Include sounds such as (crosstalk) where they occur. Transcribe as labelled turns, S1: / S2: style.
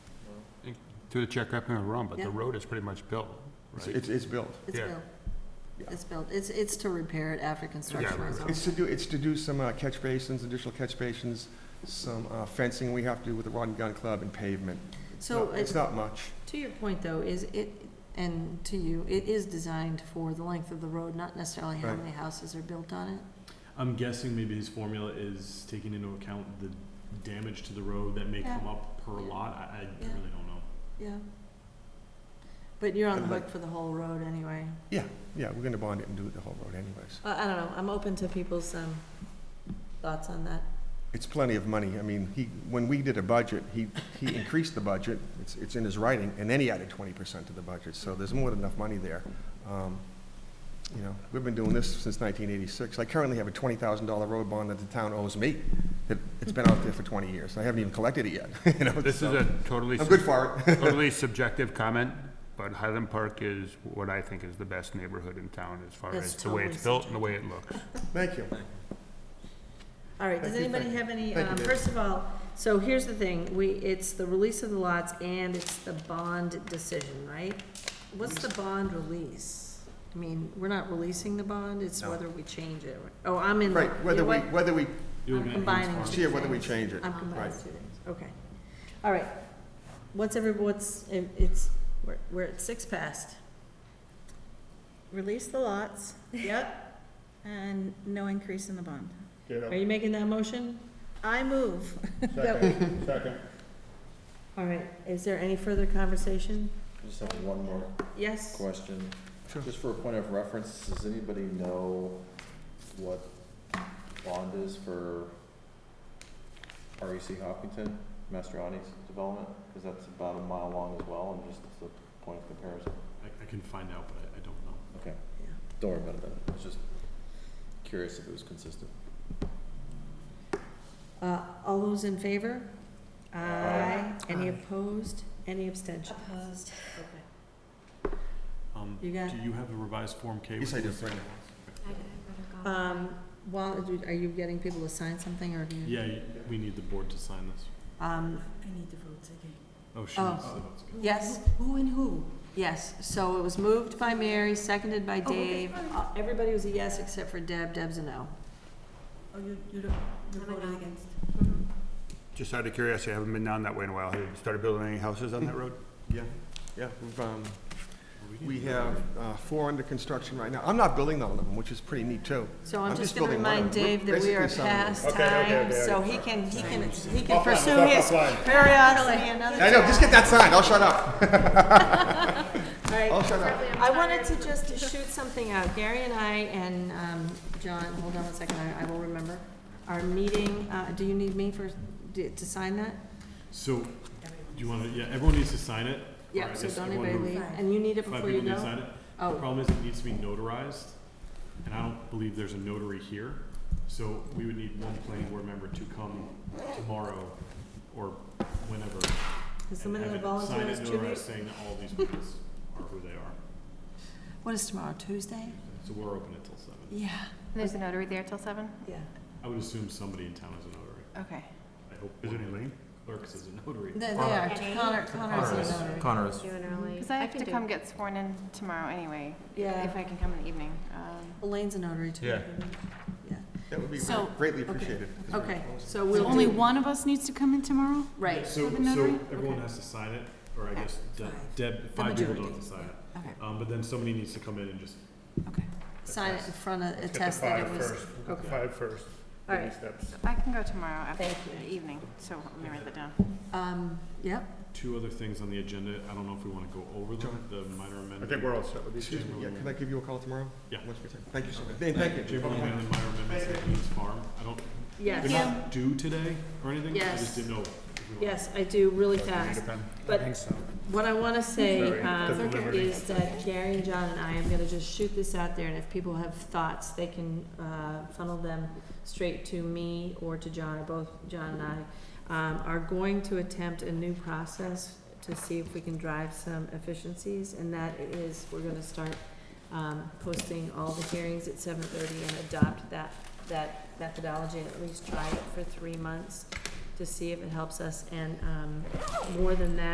S1: through the check, up me if I'm wrong, but
S2: Yeah.
S1: the road is pretty much built,
S3: It's-
S1: right?
S3: It's, it's built.
S2: It's
S1: Yeah.
S2: built.
S3: Yeah.
S2: It's built. It's, it's to repair it after construction
S1: right,
S2: is
S1: right.
S2: over.
S3: It's to do, it's to do some uh, catch basins, additional catch basins, some uh, fencing we have to do with the Rod and Gun Club and pavement.
S2: So
S3: No,
S2: it-
S3: It's not much.
S2: to your point, though, is it, and to you, it is designed for the length of the road, not necessarily how
S3: Right.
S2: many houses are built on it.
S4: I'm guessing maybe his formula is taking into account the damage to the road that may
S2: Yeah.
S4: come up per
S2: Yeah.
S4: lot. I, I
S2: Yeah.
S4: really don't know.
S2: Yeah. But you're on the
S3: And
S2: hook for the whole road anyway.
S3: Yeah, we're gonna bond it and do it the whole road anyways.
S2: Uh, I don't know. I'm open to people's, um, thoughts on that.
S3: It's plenty of money. I mean, he, when we did a budget, he, he increased the budget, it's, it's in his writing, and then he added twenty percent to the budget, so there's more than enough money there. Um, You know, we've been doing this since nineteen eighty-six. I currently have a twenty thousand dollar road bond that the town owes me, that it's been out there for twenty years. I haven't even collected it yet, (laughs) you know,
S1: This is
S3: so
S1: a totally,
S3: I'm good
S1: sub-
S3: for it.
S1: totally subjective comment, but Highland Park is what I think is the best neighborhood in town as far
S2: That's
S1: as the way
S2: totally
S1: it's built and the way it looks.
S3: (laughs) Thank you.
S2: All right, does
S3: Thank you,
S2: anybody
S3: thank you.
S2: have any,
S3: Thank you,
S2: um,
S3: Dave.
S2: first of all, so here's the thing, we, it's the release of the lots and it's the bond decision, right? What's the bond release? I mean, we're not releasing the bond, it's
S3: No.
S2: whether we change it. Oh, I'm in, the-
S3: Right,
S2: you
S3: whether
S2: know
S3: we,
S2: what?
S3: whether we,
S4: You're
S2: I'm
S4: looking at Ian's
S2: combining
S4: formula.
S2: two
S3: see whether we
S2: things.
S3: change it.
S2: I'm combining
S3: Right.
S2: two things, okay. All right, what's every, what's, it- it's, we're, we're at six past.
S5: Release the lots
S2: Yep,
S5: and no increase in the bond.
S2: are you making that motion?
S5: I move.
S2: All right, is there any further conversation?
S6: I just have one more
S2: Yes?
S6: question.
S3: Sure.
S6: Just for a point of reference, does anybody know what bond is for REC Hopkinton, Mastriani's development? Because that's about a mile long as well, and just as a point of comparison.
S4: I, I can find out, but I, I don't know.
S2: Yeah.
S6: Don't worry about it then. I was just curious if it was consistent.
S2: Uh, all those in favor?
S6: Aye.
S2: Any
S3: Aye.
S2: opposed? Any abstention?
S5: Opposed.
S2: Okay.
S4: Um,
S2: You got-
S4: do you have a revised Form K?
S3: Yes,
S4: with
S3: I do.
S4: this?
S2: Um, while, are you getting people to sign something or do you?
S4: Yeah, you- we need the board to sign this.
S2: Um,
S5: I need to vote again.
S4: Oh, she
S2: Oh.
S4: needs the votes.
S2: yes,
S5: Who and who?
S2: yes. So it was moved by Mary, seconded by
S5: Oh, okay,
S2: Dave.
S5: fine.
S2: Uh, Everybody was a yes except for Deb. Deb's a no.
S5: Oh, you, you don't, you're voting against.
S1: Just out of curiosity, I haven't been down that way in a while. Have you started building any houses on that road?
S3: Yeah, yeah, we've, um, we have uh, four under construction right now. I'm not building all of them, which is pretty neat too.
S2: So I'm
S3: I'm
S2: just
S3: just
S2: gonna
S3: building one.
S2: remind
S3: We're
S2: Dave that we
S3: basically
S2: are
S3: signing one.
S2: past time, so he can, he can, he can pursue
S3: offline,
S2: his curiosity another
S3: I know, just get
S2: time.
S3: that signed, I'll shut up.
S2: All right.
S3: I'll shut up.
S2: I wanted to just shoot something out. Gary and I and, um, John, hold on one second, I, I will remember. Our meeting, uh, do you need me for, to to sign that?
S4: So, do you wanna, yeah, everyone needs to sign it? or
S2: Yeah,
S4: I
S2: so
S4: guess
S2: don't
S4: everyone
S2: anybody
S4: who-
S2: leave, and you need it
S4: Five
S2: before you
S4: people need to
S2: go?
S4: sign it. The
S2: Oh,
S4: problem is it needs to be notarized, and I don't believe there's a notary here. So we would need one planning board member to come tomorrow or whenever.
S2: is the
S4: and
S2: minimum
S4: have it
S2: volunteer is
S4: signed
S2: two
S4: and notarized
S2: weeks?
S4: saying that all these people are who they are.
S2: What is tomorrow, Tuesday?
S4: So we're open until seven.
S2: Yeah,
S5: There's a notary there till seven?
S2: yeah.
S4: I would assume somebody in town is a notary.
S5: Okay.
S4: I hope
S1: Is
S4: one
S1: it
S4: of the
S1: Elaine?
S4: Clerks is a notary.
S2: They, they are,
S5: Connie.
S2: Connor, Connor's a notary.
S6: Connor is.
S5: Because I have to come get sworn in tomorrow anyway, if
S2: Yeah,
S5: I can come in the evening. Um,
S2: Elaine's a notary too.
S1: Yeah.
S2: Yeah,
S3: That would be
S5: So-
S3: greatly
S2: okay.
S3: appreciated. 'cause we're
S2: okay,
S3: close.
S2: so we'll do.
S5: Only one of us needs to come in tomorrow?
S2: Right,
S4: So,
S5: With a notary?
S4: so everyone
S2: Okay.
S4: has to sign it, or I
S2: Yeah,
S4: guess De-
S2: five.
S4: Deb,
S2: The
S4: five people
S2: majority,
S4: don't have to sign it.
S5: Okay,
S4: Um, but then somebody needs to come in and just
S5: okay.
S2: sign it in front of, attest that it was. okay.
S1: Five first.
S2: All right.
S1: steps.
S5: I can go tomorrow after
S2: Thank you.
S5: the evening, so let me write that down.
S2: Um, yep,
S4: two other things on the agenda. I don't know if we want to go over them, the minor amendment.
S1: all set with
S3: Excuse me, yeah, could I give you a call tomorrow?
S4: Yeah.
S3: Once we take- Thank you so much. Thank thank you.
S4: Chamberlain Lane and minor amendments at Queens Farm. I don't,
S2: yes.
S4: they're not due today or anything? I
S2: Yes.
S4: just didn't know. if we were-
S2: Yes, I do, really fast. But what I want to say
S1: Sorry,
S2: um,
S1: the delivery.
S2: is that Gary and John and I am going to just shoot this out there, and if people have thoughts, they can uh, funnel them straight to me or to John, or both John and I, um, are going to attempt a new process to see if we can drive some efficiencies, and that is, we're going to start um, posting all the hearings at seven thirty and adopt that, that methodology, and at least try it for three months to see if it helps us, and um, more than that.